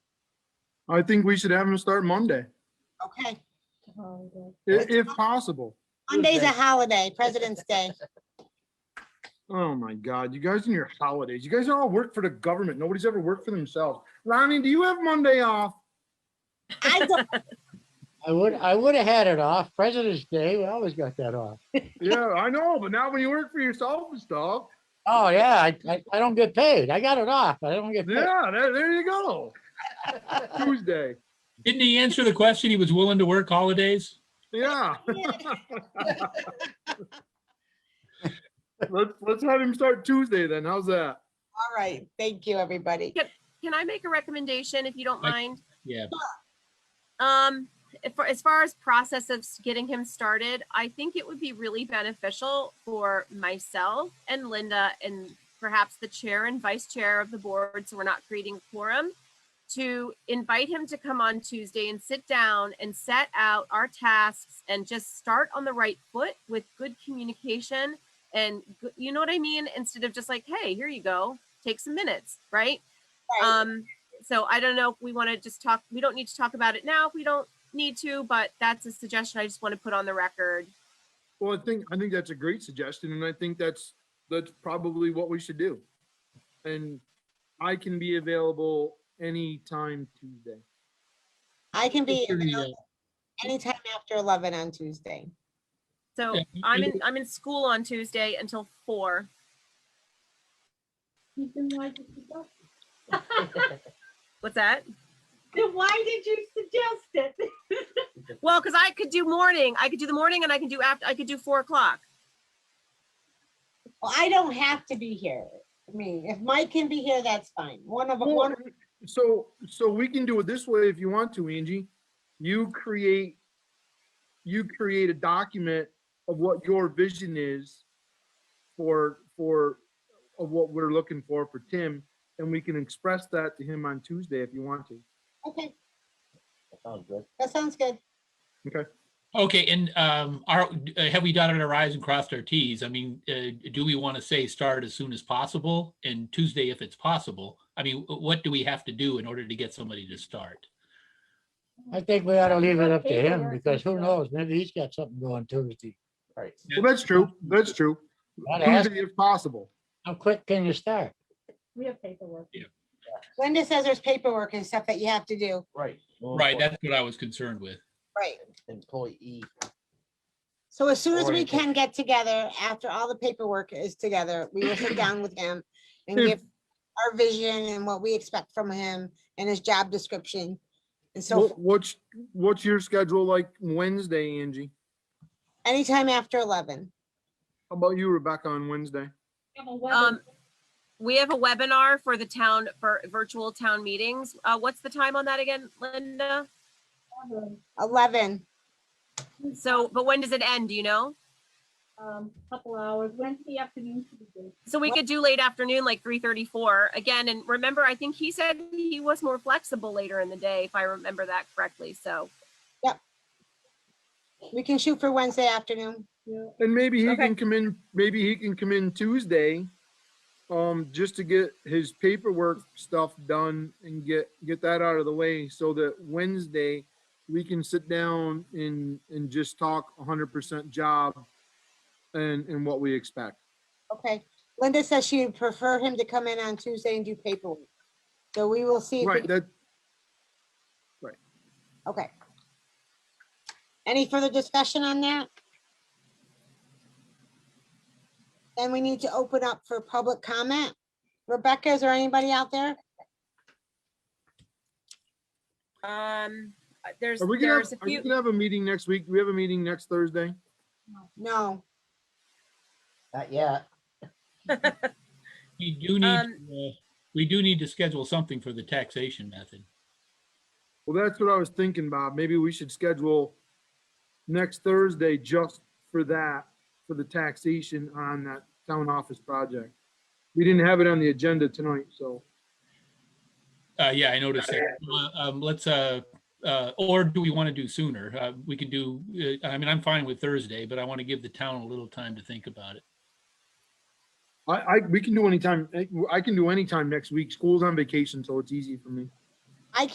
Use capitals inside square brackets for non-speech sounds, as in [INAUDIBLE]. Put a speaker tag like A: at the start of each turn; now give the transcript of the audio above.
A: I think we should have them start Monday,
B: Okay.
A: i- if possible.
B: Monday's a holiday, President's Day.
A: Oh my God, you guys and your holidays. You guys all work for the government. Nobody's ever worked for themselves. Ronnie, do you have Monday off?
B: I don't,
C: I would, I would have had it off. President's Day, we always got that off.
A: Yeah, I know, but now when you work for yourself and stuff,
C: Oh, yeah, I, I, I don't get paid. I got it off. I don't get paid.
A: yeah, there, there you go. Tuesday,
D: Didn't he answer the question? He was willing to work holidays?
A: yeah. [LAUGHS] Let's, let's have him start Tuesday then. How's that?
B: [LAUGHS] all right, thank you, everybody.
E: Can I make a recommendation if you don't
D: Like-
E: mind?
D: Yeah.
E: Um, if- for, as far as process of s- getting him started, I think it would be really beneficial for myself and Linda and perhaps the chair and vice chair of the board, so we're not creating quorum, to invite him to come on Tuesday and sit down and set out our tasks and just start on the right foot with good communication and, good- you know what I mean? Instead of just like, hey, here you go, take some minutes, right?
B: Right.
E: Um, so I don't know if we want to just talk, we don't need to talk about it now. if We don't need to, but that's a suggestion I just want to put on the record.
A: Well, I think, I think that's a great suggestion and I think that's, that's probably what we should do. And I can be available anytime Tuesday.
B: I can be
D: Sure, yeah.
B: available anytime after 11 on Tuesday.
E: So
D: Yeah,
E: I'm
D: I
E: in, I'm in school on Tuesday until four.
F: [LAUGHS]
E: What's that?
F: Then why did you suggest it? [LAUGHS]
E: Well, because I could do morning, I could do the morning and I can do after, I could do four o'clock.
B: Well, I don't have to be here. I mean, if Mike can be here, that's fine. One of,
A: Well,
B: one, of-
A: So, so we can do it this way if you want to, Angie. You create, you create a document of what your vision is for, for, of what we're looking for for Tim, and we can express that to him on Tuesday if you want to.
B: okay,
C: Sounds good.
B: that sounds good.
D: Okay, and um, are, uh, have we dotted our i's and crossed our t's? I mean, uh, do we want to say start as soon as possible and Tuesday if it's possible? I mean, wh- what do we have to do in order to get somebody to start?
C: I think we ought to leave it up to him because who knows? Maybe he's got something going Tuesday. Right.
A: Well, that's true. That's true.
C: I'd ask-
A: Tuesday if possible.
C: How quick can you start?
F: We have paperwork.
B: Linda says there's paperwork and stuff that you have to do.
G: Right. more
D: Right,
G: important,
D: that's what I was concerned with.
B: Right.
G: Employee.
B: So as soon as we
G: Alright.
B: can get together, after all the paperwork is together, we will sit down with him and
A: If-
B: give our vision and what we expect from him and his job description. And so
A: What- What's, what's your schedule like Wednesday, Angie?
B: anytime after eleven,
A: How about you, Rebecca, on Wednesday?
E: Um, we have a webinar for the town, for virtual town meetings. Uh, what's the time on that again, Linda?
B: eleven,
E: So, but when does it end? Do you know?
F: Um, couple hours, Wednesday afternoon. should be good.
E: So we could do late afternoon, like three thirty-four again. And remember, I think he said he was more flexible later in the day, if I remember that correctly. So
B: we can shoot for Wednesday afternoon.
F: Yeah.
A: And maybe he
E: Okay.
A: can come in, maybe he can come in Tuesday, um, just to get his paperwork stuff done and get, get that out of the way so that Wednesday we can sit down and, and just talk hundred percent job and, and what we expect.
B: Okay. Linda says she would prefer him to come in on Tuesday and do paperwork. So we will see. if we-
A: Right, that,
B: Okay. Any further discussion on that? Then we need to open up for public comment. Rebecca, is there anybody out there?
E: um, there's
A: are we gonna, have-
E: there's a
A: are we
E: few.
A: gonna have a meeting next week? Do we have a meeting next Thursday?
B: No.
G: Not yet.
D: We do need,
E: Um,
D: to, uh, we do need to schedule something for the taxation method.
A: Well, that's what I was thinking, Bob. Maybe we should schedule next Thursday just for that, for the taxation on that town office project. We didn't have it on the agenda tonight, so.
D: Uh, yeah, I noticed that. Uh, Um, let's, uh, uh, or do we want to do sooner? Uh, we can do, uh, I mean, I'm fine with Thursday, but I want to give the town a little time to think about it.
A: I, I, we can do anytime, I- I can do anytime next week. School's on vacation, so it's easy for me.